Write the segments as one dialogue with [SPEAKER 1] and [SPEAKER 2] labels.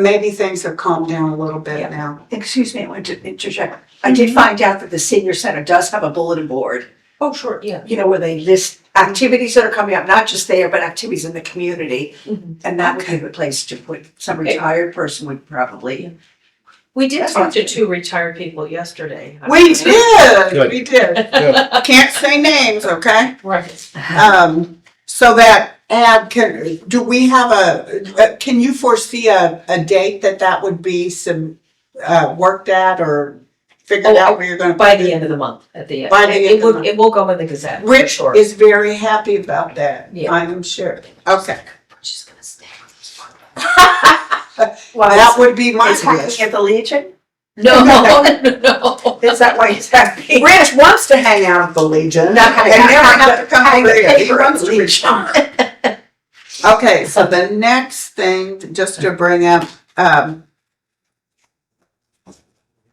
[SPEAKER 1] Maybe things have calmed down a little bit
[SPEAKER 2] Yeah.
[SPEAKER 1] now.
[SPEAKER 3] Excuse me, I want to interject. I
[SPEAKER 1] Mm-hmm.
[SPEAKER 3] did find out that the senior center does have a bulletin board,
[SPEAKER 2] Oh, sure, yeah.
[SPEAKER 3] you know, where they list activities that are coming up, not just there, but activities in the community.
[SPEAKER 2] Mhm.
[SPEAKER 3] And that would be the place to put, some retired person would probably.
[SPEAKER 2] We did talk to two retired people yesterday.
[SPEAKER 1] We did,
[SPEAKER 4] Good.
[SPEAKER 1] we did. Can't say names, okay?
[SPEAKER 2] Right.
[SPEAKER 1] Um, so that ad can, do we have a, uh, can you foresee a, a date that that would be some, uh, worked at or figured
[SPEAKER 2] Oh,
[SPEAKER 1] out where you're gonna?
[SPEAKER 2] By
[SPEAKER 1] put
[SPEAKER 2] the
[SPEAKER 1] it?
[SPEAKER 2] end of the month, at the end.
[SPEAKER 1] By the
[SPEAKER 2] It-
[SPEAKER 1] end of
[SPEAKER 2] It
[SPEAKER 1] the
[SPEAKER 2] will,
[SPEAKER 1] month.
[SPEAKER 2] it will go in the Gazette, for
[SPEAKER 1] Rich
[SPEAKER 2] sure.
[SPEAKER 1] is very happy about that,
[SPEAKER 2] Yeah.
[SPEAKER 1] I'm sure. Okay,
[SPEAKER 2] She's gonna stay.
[SPEAKER 1] that would be my
[SPEAKER 3] It's
[SPEAKER 1] wish.
[SPEAKER 3] happening at the Legion?
[SPEAKER 2] No, no, no.
[SPEAKER 3] Is that why it's happening?
[SPEAKER 1] Rich wants to hang out at the Legion.
[SPEAKER 3] Not gonna
[SPEAKER 1] And
[SPEAKER 3] have-
[SPEAKER 1] never
[SPEAKER 3] have
[SPEAKER 1] have to come
[SPEAKER 3] hang
[SPEAKER 1] over
[SPEAKER 3] the
[SPEAKER 1] here. He
[SPEAKER 3] paper at
[SPEAKER 1] wants
[SPEAKER 3] the
[SPEAKER 1] to be
[SPEAKER 3] Legion.
[SPEAKER 1] Okay, so the next thing, just to bring up, um,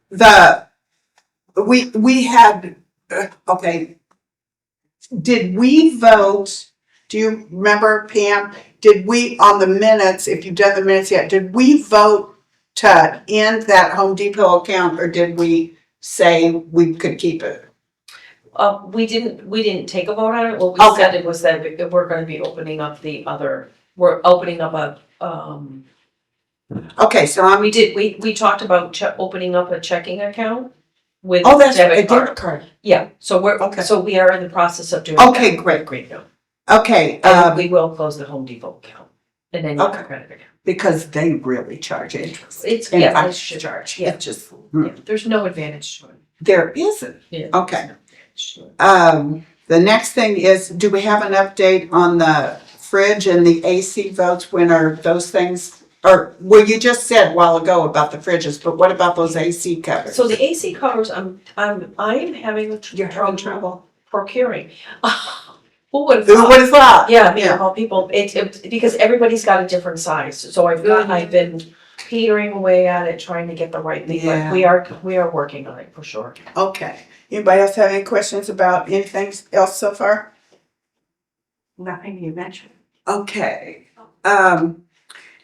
[SPEAKER 1] the, we, we had, uh, okay. Did we vote, do you remember Pam, did we, on the minutes, if you've done the minutes yet, did we vote to end that Home Depot account, or did we say we could keep it?
[SPEAKER 2] Uh, we didn't, we didn't take a vote on it. What we
[SPEAKER 1] Okay.
[SPEAKER 2] said it was that we- we're gonna be opening up the other, we're opening up a, um,
[SPEAKER 1] Okay, so I'm,
[SPEAKER 2] we did, we, we talked about che- opening up a checking account with
[SPEAKER 1] oh, that's a debit
[SPEAKER 2] debit card.
[SPEAKER 1] card.
[SPEAKER 2] Yeah, so
[SPEAKER 1] Okay.
[SPEAKER 2] we're, so we are in the process of doing.
[SPEAKER 1] Okay,
[SPEAKER 2] that.
[SPEAKER 1] great.
[SPEAKER 2] Great, no.
[SPEAKER 1] Okay,
[SPEAKER 2] And
[SPEAKER 1] um,
[SPEAKER 2] we will close the Home Depot account and then your
[SPEAKER 1] Okay.
[SPEAKER 2] credit account.
[SPEAKER 1] because they really charge interest.
[SPEAKER 2] It's,
[SPEAKER 1] And
[SPEAKER 2] yeah,
[SPEAKER 1] I-
[SPEAKER 2] it's a charge, yeah.
[SPEAKER 1] It just,
[SPEAKER 2] yeah. There's no advantage to it.
[SPEAKER 1] there isn't.
[SPEAKER 2] Yeah.
[SPEAKER 1] Okay.
[SPEAKER 2] Sure.
[SPEAKER 1] Um, the next thing is, do we have an update on the fridge and the AC votes? When are those things, or, well, you just said a while ago about the fridges, but what about those AC covers?
[SPEAKER 2] So the AC covers, I'm, I'm, um, I am having a tr-
[SPEAKER 1] You're having
[SPEAKER 2] trouble
[SPEAKER 1] trouble?
[SPEAKER 2] procuring. Who would have
[SPEAKER 1] Who
[SPEAKER 2] thought?
[SPEAKER 1] would have thought?
[SPEAKER 2] Yeah, me of all people, it's, it's because everybody's got a different size, so I've got, I've been petering away at it, trying to get the right thing,
[SPEAKER 1] Yeah.
[SPEAKER 2] but we are, we are working on it for sure.
[SPEAKER 1] Okay. Anybody else have any questions about anything else so far?
[SPEAKER 3] Nothing you mentioned.
[SPEAKER 1] Okay. Um,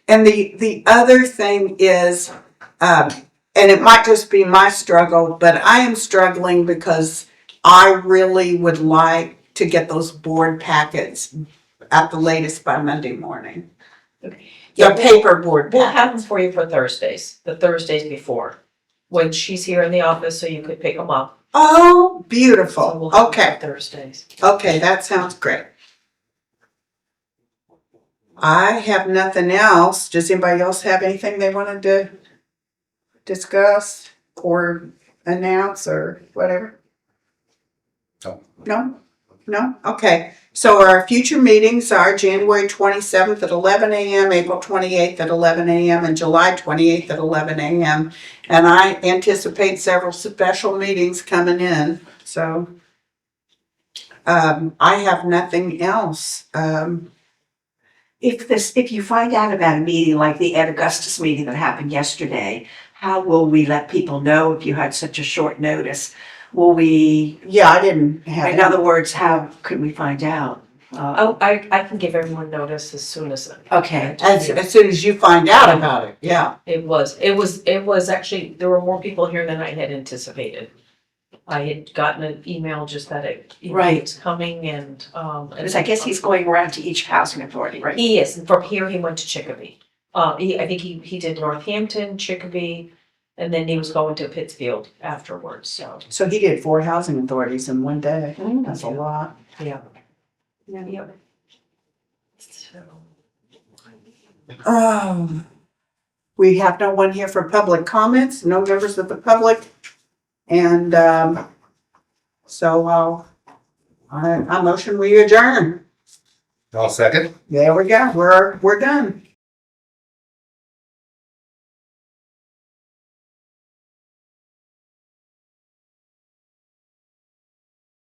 [SPEAKER 1] and the, the other thing is, um, and it might just be my struggle, but I am struggling because I really would like to get those board packets at the latest by Monday morning. The
[SPEAKER 2] Yeah, we'll-
[SPEAKER 1] paper board
[SPEAKER 2] We'll have them
[SPEAKER 1] packets.
[SPEAKER 2] for you for Thursdays, the Thursdays before, when she's here in the office, so you could pick them up.
[SPEAKER 1] Oh,
[SPEAKER 2] So we'll
[SPEAKER 1] beautiful.
[SPEAKER 2] have 'em
[SPEAKER 1] Okay,
[SPEAKER 2] for Thursdays.
[SPEAKER 1] okay, that sounds great. I have nothing else. Does anybody else have anything they wanted to discuss or announce or whatever?
[SPEAKER 4] No.
[SPEAKER 1] No? No? Okay. So our future meetings are January twenty-seventh at eleven AM, April twenty-eighth at eleven AM, and July twenty-eighth at eleven AM. And I anticipate several special meetings coming in, so. Um, I have nothing else. Um,
[SPEAKER 3] If this, if you find out about a meeting like the Ed Augustus meeting that happened yesterday, how will we let people know if you had such a short notice? Will we,
[SPEAKER 1] yeah, I didn't have.
[SPEAKER 3] in other words, how could we find out? Uh,
[SPEAKER 2] Oh, I, I can give everyone notice as soon as.
[SPEAKER 3] Okay.
[SPEAKER 1] As, as soon as you find out about it, yeah.
[SPEAKER 2] It was, it was, it was actually, there were more people here than I had anticipated. I had gotten an email just that it, you know,
[SPEAKER 3] Right.
[SPEAKER 2] it's coming and, um. and-
[SPEAKER 3] Because I guess he's going around to each housing authority, right?
[SPEAKER 2] He is, and from here he went to Chicopee. Uh, he, I think he, he did Northampton, Chicopee, and then he was going to Pittsfield afterwards, so,
[SPEAKER 1] So he did four housing authorities in one day. That's a lot.
[SPEAKER 2] yeah.
[SPEAKER 3] Yeah.
[SPEAKER 2] Yeah. So.
[SPEAKER 1] Um, we have no one here for public comments, no members of the public. And, um, so, uh, I, I motion we adjourn.
[SPEAKER 4] I'll second.
[SPEAKER 1] There we go. We're, we're done.